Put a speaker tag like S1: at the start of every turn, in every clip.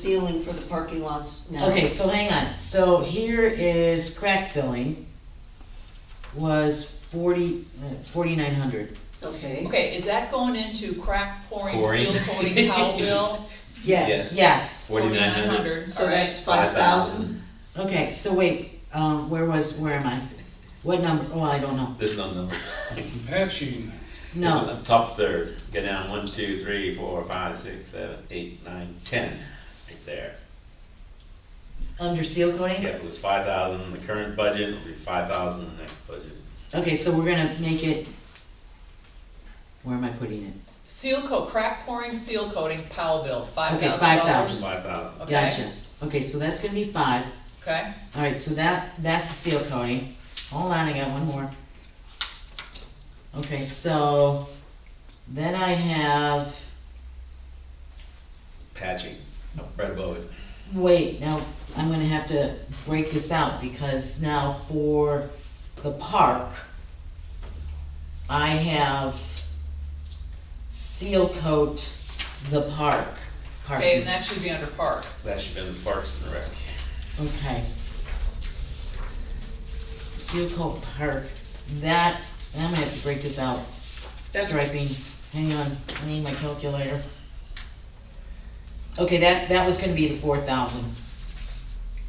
S1: ceiling for the parking lots now.
S2: Okay, so hang on, so here is crack filling was forty, uh, forty-nine hundred.
S1: Okay,
S3: Okay, is that going into crack pouring,
S4: Pouring.
S3: seal coating, cowbell?
S1: yes,
S4: Yes.
S2: Yes,
S4: Forty-nine hundred.
S1: so that's five thousand,
S2: okay, so wait, um, where was, where am I? What number, oh, I don't know,
S4: This number.
S5: Patching,
S2: no,
S4: Top third, go down one, two, three, four, five, six, seven, eight, nine, ten, right there.
S2: under seal coating?
S4: Yeah, it was five thousand in the current budget, it'll be five thousand in the next budget.
S2: Okay, so we're gonna make it, where am I putting it?
S3: Seal coat, crack pouring, seal coating, cowbell, five
S2: Okay,
S3: thousand dollars.
S2: 5,000.
S4: Five thousand.
S3: Okay.
S2: Gotcha, okay, so that's gonna be five,
S3: Okay,
S2: alright, so that, that's seal coating, hold on, I got one more. Okay, so, then I have,
S4: Patching, up right above it.
S2: wait, now, I'm gonna have to break this out, because now for the park, I have seal coat the park,
S3: okay,
S2: parking.
S3: and that should be under park.
S4: That should have been Parks and Rec.
S2: Okay. Seal coat park, that, and I'm gonna have to break this out.
S1: That's-
S2: Striping, hang on, I need my calculator. Okay, that, that was gonna be the four thousand,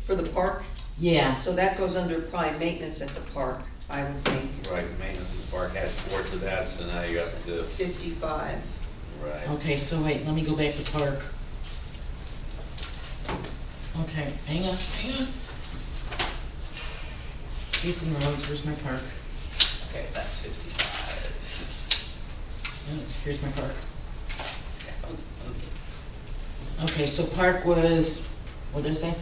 S1: for the park,
S2: yeah,
S1: so that goes under prime maintenance at the parc, I would think,
S4: Right, maintenance of the park had four to that, so now you're up to,
S1: fifty-five.
S4: right.
S2: okay, so wait, let me go back to park. Okay, hang on, hang on. Streets and roads, where's my park?
S3: Okay, that's fifty-five.
S2: Oh, it's- Here's my park. Okay, so park was, what did I say?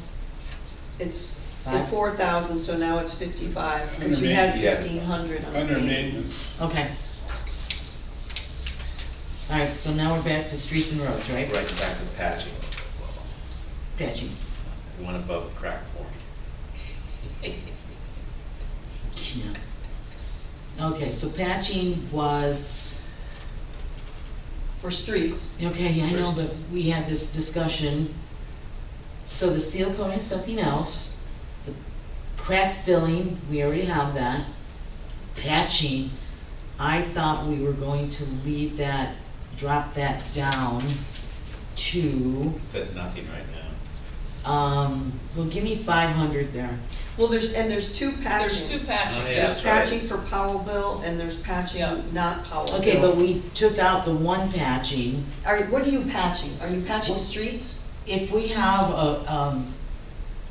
S1: It's the
S2: Five.
S1: four thousand, so now it's fifty-five, cause you had
S4: Under ma- yeah.
S1: fifteen hundred on
S5: under
S1: maintenance.
S5: maintenance,
S2: Okay. Alright, so now we're back to streets and roads, right?
S4: Right back to patching,
S2: Patching.
S4: one above crack pouring.
S2: Okay, so patching was,
S1: For streets,
S2: okay, I know, but we had this discussion. So the seal coating, something else, the crack filling, we already have that. Patching, I thought we were going to leave that, drop that down to,
S4: It's at nothing right now.
S2: um, well, give me five hundred there.
S1: well, there's, and there's two patching.
S3: There's two patching,
S4: Oh, yeah.
S3: yeah.
S1: There's
S4: That's
S1: patching for Powellville and there's patching
S3: Yeah.
S1: not Powellville.
S2: Okay, but we took out the one patching.
S1: Are, what are you patching? Are you patching streets?
S2: If we have a, um,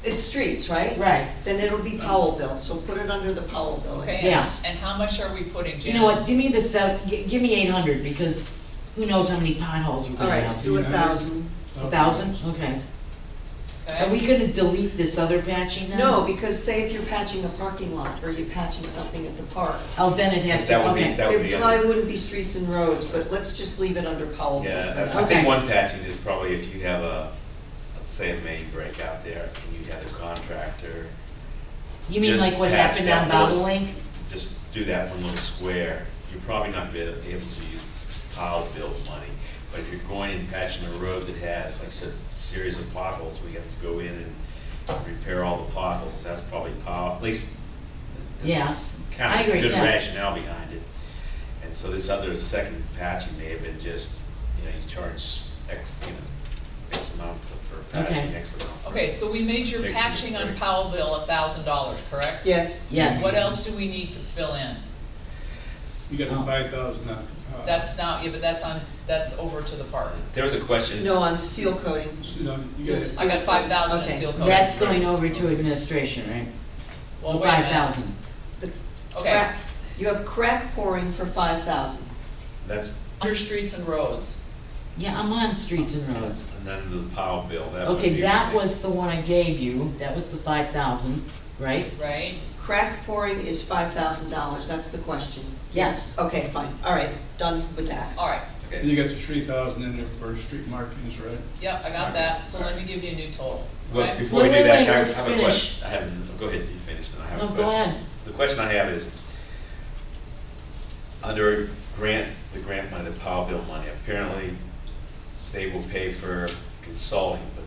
S1: It's streets, right?
S2: right,
S1: Then it'll be Powellville, so put it under the Powellville.
S3: Okay,
S1: expense.
S2: Yeah.
S3: and- and how much are we putting, Jan?
S2: you know what, give me the sev, gi- give me eight hundred, because who knows how many potholes we're
S1: All
S2: gonna
S1: right, so
S2: have?
S1: do a thousand.
S2: A thousand, okay. Are
S3: Okay,
S2: we gonna delete this other patching now?
S1: No, because say if you're patching a parking lot or you're patching something at the park,
S2: Oh, then it has to,
S4: That would be-
S2: okay,
S4: That would be
S1: it
S4: under-
S1: probably wouldn't be streets and roads, but let's just leave it under Powellville.
S4: Yeah,
S1: for
S4: I I
S1: now.
S2: Okay.
S4: think one patching is probably if you have a, say a main break out there, and you had a contractor,
S2: you mean
S4: just
S2: like what
S4: patch
S2: happened on
S4: that those-
S2: Bobolink?
S4: just do that one little square, you're probably not be able to use pile build money. But if you're going and patching a road that has, like I said, a series of potholes, we have to go in and repair all the potholes, that's probably pile, at least.
S2: Yeah,
S4: it's
S2: I
S4: Kind of
S2: agree,
S4: good
S2: yeah.
S4: rationale behind it. And so this other second patching may have been just, you know, you charge X, you know, X amount for patching,
S2: Okay.
S4: X amount. for-
S3: okay, so we made your
S4: Fixing it,
S3: patching on
S4: right.
S3: Powellville a thousand dollars, correct?
S1: Yes,
S2: Yes,
S3: What else do we need to fill in?
S5: you got the
S2: Oh.
S5: five thousand up. uh,
S3: That's not, yeah, but that's on, that's over to the park.
S4: There was a question.
S1: no, on seal coating.
S5: You know, you got it.
S3: I got five thousand in
S1: Okay.
S3: seal coating.
S2: that's going over to administration, right?
S3: Well, wait a
S2: Five
S3: minute.
S2: thousand.
S3: Okay,
S1: Crack- You have crack pouring for five thousand.
S4: That's
S3: under streets and roads.
S2: Yeah, I'm on streets and roads.
S4: And then the pile bill, that would
S2: Okay,
S4: be-
S2: that was the one I gave you, that was the five thousand, right?
S3: right?
S1: Crack pouring is five thousand dollars, that's the question.
S2: Yes.
S1: Okay, fine, all right, done with that.
S3: All right,
S5: And
S4: Okay,
S5: you got the three thousand in there for street markings, right?
S3: yep, I got that, so let me give you a new total,
S4: well,
S3: okay?
S4: before we
S2: Wait,
S4: do
S2: wait, wait,
S4: that, I have
S2: let's
S4: I have a
S2: finish.
S4: question, I have, go ahead, you finish, then I have a
S2: No,
S4: question.
S2: go ahead.
S4: The question I have is, under grant, the grant money, the pile bill money, apparently they will pay for consulting, but